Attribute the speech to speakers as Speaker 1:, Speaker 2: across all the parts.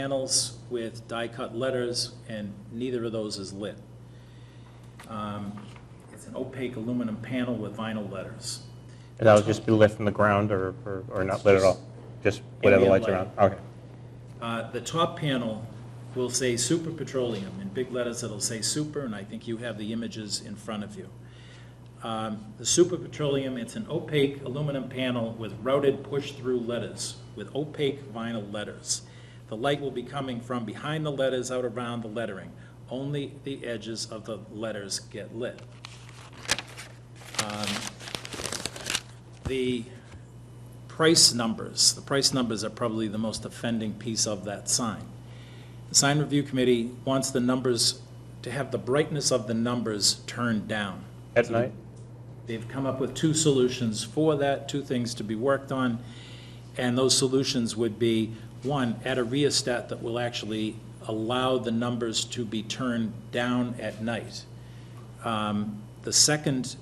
Speaker 1: panels with die-cut letters, and neither of those is lit. Um, It's an opaque aluminum panel with vinyl letters.
Speaker 2: And that would just be lit from the ground or, or- or not lit at all? Just whatever
Speaker 1: Ambient
Speaker 2: lights are on?
Speaker 1: lighting.
Speaker 2: Okay.
Speaker 1: Uh, The top panel will say Super Petroleum, in big letters it'll say Super, and I think you have the images in front of you. Um, The Super Petroleum, it's an opaque aluminum panel with routed push-through letters, with opaque vinyl letters. The light will be coming from behind the letters, out around the lettering. Only the edges of the letters get lit. Um, The price numbers, the price numbers are probably the most offending piece of that sign. The sign review committee wants the numbers, to have the brightness of the numbers turned down.
Speaker 2: At night?
Speaker 1: They've come up with two solutions for that, two things to be worked on. And those solutions would be, one, add a rheostat that will actually allow the numbers to be turned down at night. Um, The second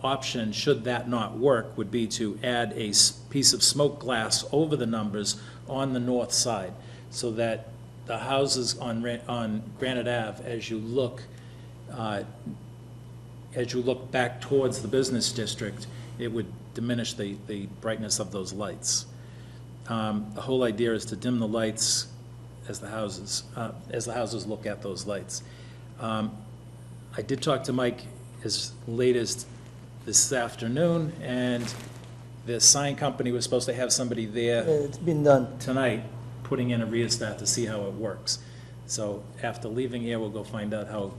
Speaker 1: option, should that not work, would be to add a s- piece of smoke glass over the numbers on the north side, so that the houses on, Ra- on Granite Ave, as you look, uh, as you look back towards the business district, it would diminish the, the brightness of those lights. Um, The whole idea is to dim the lights as the houses, uh, as the houses look at those lights. Um, I did talk to Mike as late as this afternoon, and the sign company was supposed to have somebody there
Speaker 3: Yeah, It's been done.
Speaker 1: tonight, putting in a rheostat to see how it works. So after leaving here, we'll go find out how,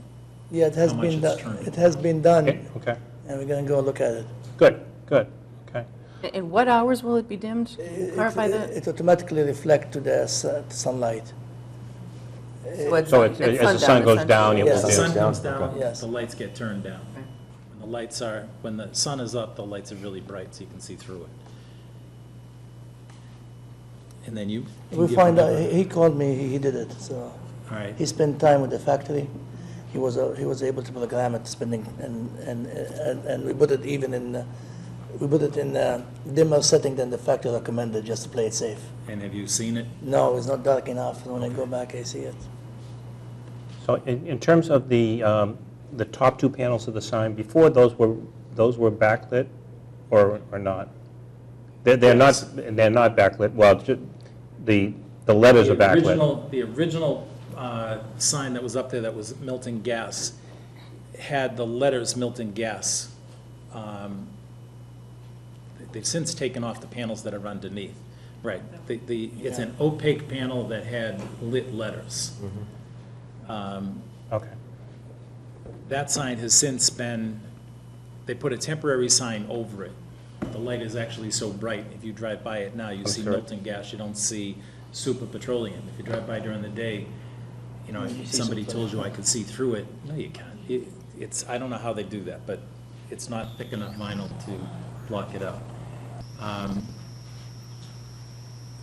Speaker 3: Yeah, it has
Speaker 1: How much
Speaker 3: been,
Speaker 1: it's
Speaker 3: done.
Speaker 1: turned.
Speaker 3: it has been done,
Speaker 2: Okay,
Speaker 1: Mm-hmm.
Speaker 2: okay.
Speaker 3: and we're gonna go look at it.
Speaker 2: Good, good, okay.
Speaker 4: In what hours will it be dimmed?
Speaker 3: It-
Speaker 4: Clarify
Speaker 3: it-
Speaker 4: that.
Speaker 3: It automatically reflect to the su- sunlight.
Speaker 2: So it's- as the sun goes down, it
Speaker 1: As
Speaker 2: will
Speaker 1: the
Speaker 3: Yes.
Speaker 2: do.
Speaker 1: sun comes
Speaker 3: okay.
Speaker 1: down,
Speaker 3: Yes.
Speaker 1: the lights get turned down.
Speaker 4: Okay.
Speaker 1: When the lights are, when the sun is up, the lights are really bright, so you can see through it. And then you. can
Speaker 3: We
Speaker 1: give
Speaker 3: find out,
Speaker 1: another-
Speaker 3: he he called me, he he did it, so.
Speaker 1: All right.
Speaker 3: He spent time with the factory. He was, uh, he was able to program it, spending, and, and, and and we put it even in, uh, we put it in a dimmer setting than the factory recommended, just to play it safe.
Speaker 1: And have you seen it?
Speaker 3: No, it's not dark enough, when I go back, I see it.
Speaker 2: So in, in terms of the, um, the top two panels of the sign, before those were, those were backlit or, or not? They're, they're not, they're not backlit, well, ju- the, the letters are
Speaker 1: The
Speaker 2: backlit.
Speaker 1: original, the original uh, sign that was up there that was Milton Gas had the letters Milton Gas. Um, They've since taken off the panels that are underneath. Right, the, the, it's an opaque panel that had lit letters. Um,
Speaker 2: Okay,
Speaker 1: That sign has since been, they put a temporary sign over it. The light is actually so bright, if you drive by it now, you see
Speaker 2: sure.
Speaker 1: Milton Gas, you don't see Super Petroleum. If you drive by during the day, you know, if somebody told you I could see through it, no, you can't. It- It's, I don't know how they do that, but it's not thick enough vinyl to block it out. Um,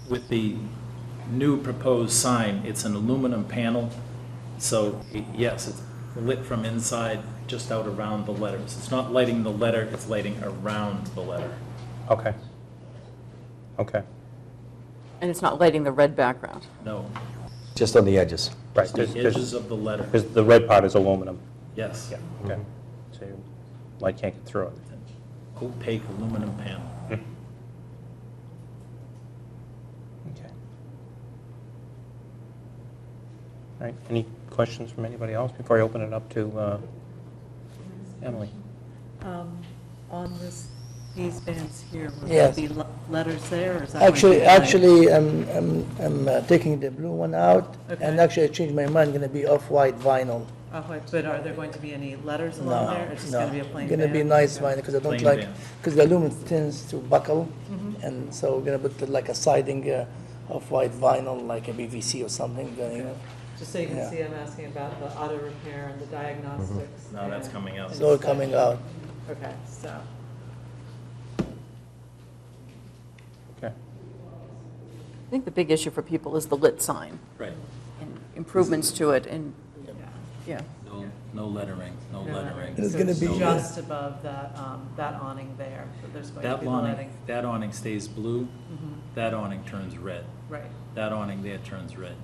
Speaker 1: With the new proposed sign, it's an aluminum panel, so it- yes, it's lit from inside, just out around the letters. It's not lighting the letter, it's lighting around the letter.
Speaker 2: okay. Okay,
Speaker 4: And it's not lighting the red background.
Speaker 1: No,
Speaker 5: Just on the edges.
Speaker 2: right,
Speaker 1: it's the edges of the letter,
Speaker 2: because the red part is aluminum.
Speaker 1: yes.
Speaker 2: Yeah, okay.
Speaker 1: Mm-hmm.
Speaker 2: So your light can't get through it.
Speaker 1: Opaque aluminum panel.
Speaker 2: Okay. All right, any questions from anybody else before I open it up to uh, Emily?
Speaker 6: Um, On this, these bands here, will there
Speaker 3: Yes.
Speaker 6: be le- letters there, or is that? going to
Speaker 3: Actually,
Speaker 6: be blank?
Speaker 3: actually, I'm, I'm, I'm uh, taking the blue one out, and
Speaker 6: Okay.
Speaker 3: actually I changed my mind, gonna be off-white vinyl.
Speaker 6: Oh, wait, But are there going to be any letters
Speaker 3: No,
Speaker 6: along there? It's just
Speaker 3: no.
Speaker 6: going to be a plain band?
Speaker 3: Gonna be nice vinyl, because I don't
Speaker 1: Plain
Speaker 3: like,
Speaker 1: band.
Speaker 3: because the aluminum tends to buckle,
Speaker 6: Mm-hmm.
Speaker 3: and so we're gonna put like a siding uh, of white vinyl, like a BVC or something, you know.
Speaker 6: Just so you
Speaker 3: Yeah.
Speaker 6: can see, I'm asking about the auto repair and the diagnostics.
Speaker 1: No, that's
Speaker 6: and-
Speaker 1: coming out.
Speaker 3: it's all coming out.
Speaker 6: Okay, so,
Speaker 2: Okay.
Speaker 4: I think the big issue for people is the lit sign
Speaker 1: Right.
Speaker 4: and improvements to it and,
Speaker 6: yeah.
Speaker 4: yeah.
Speaker 1: No, no lettering, no
Speaker 6: No
Speaker 1: lettering.
Speaker 3: It's
Speaker 6: So
Speaker 3: gonna be-
Speaker 6: Just above that, um, that awning there, so there's going to
Speaker 1: That
Speaker 6: be
Speaker 1: awning,
Speaker 6: lighting.
Speaker 1: that awning stays blue. that awning turns red.
Speaker 6: right.
Speaker 1: That awning there turns red.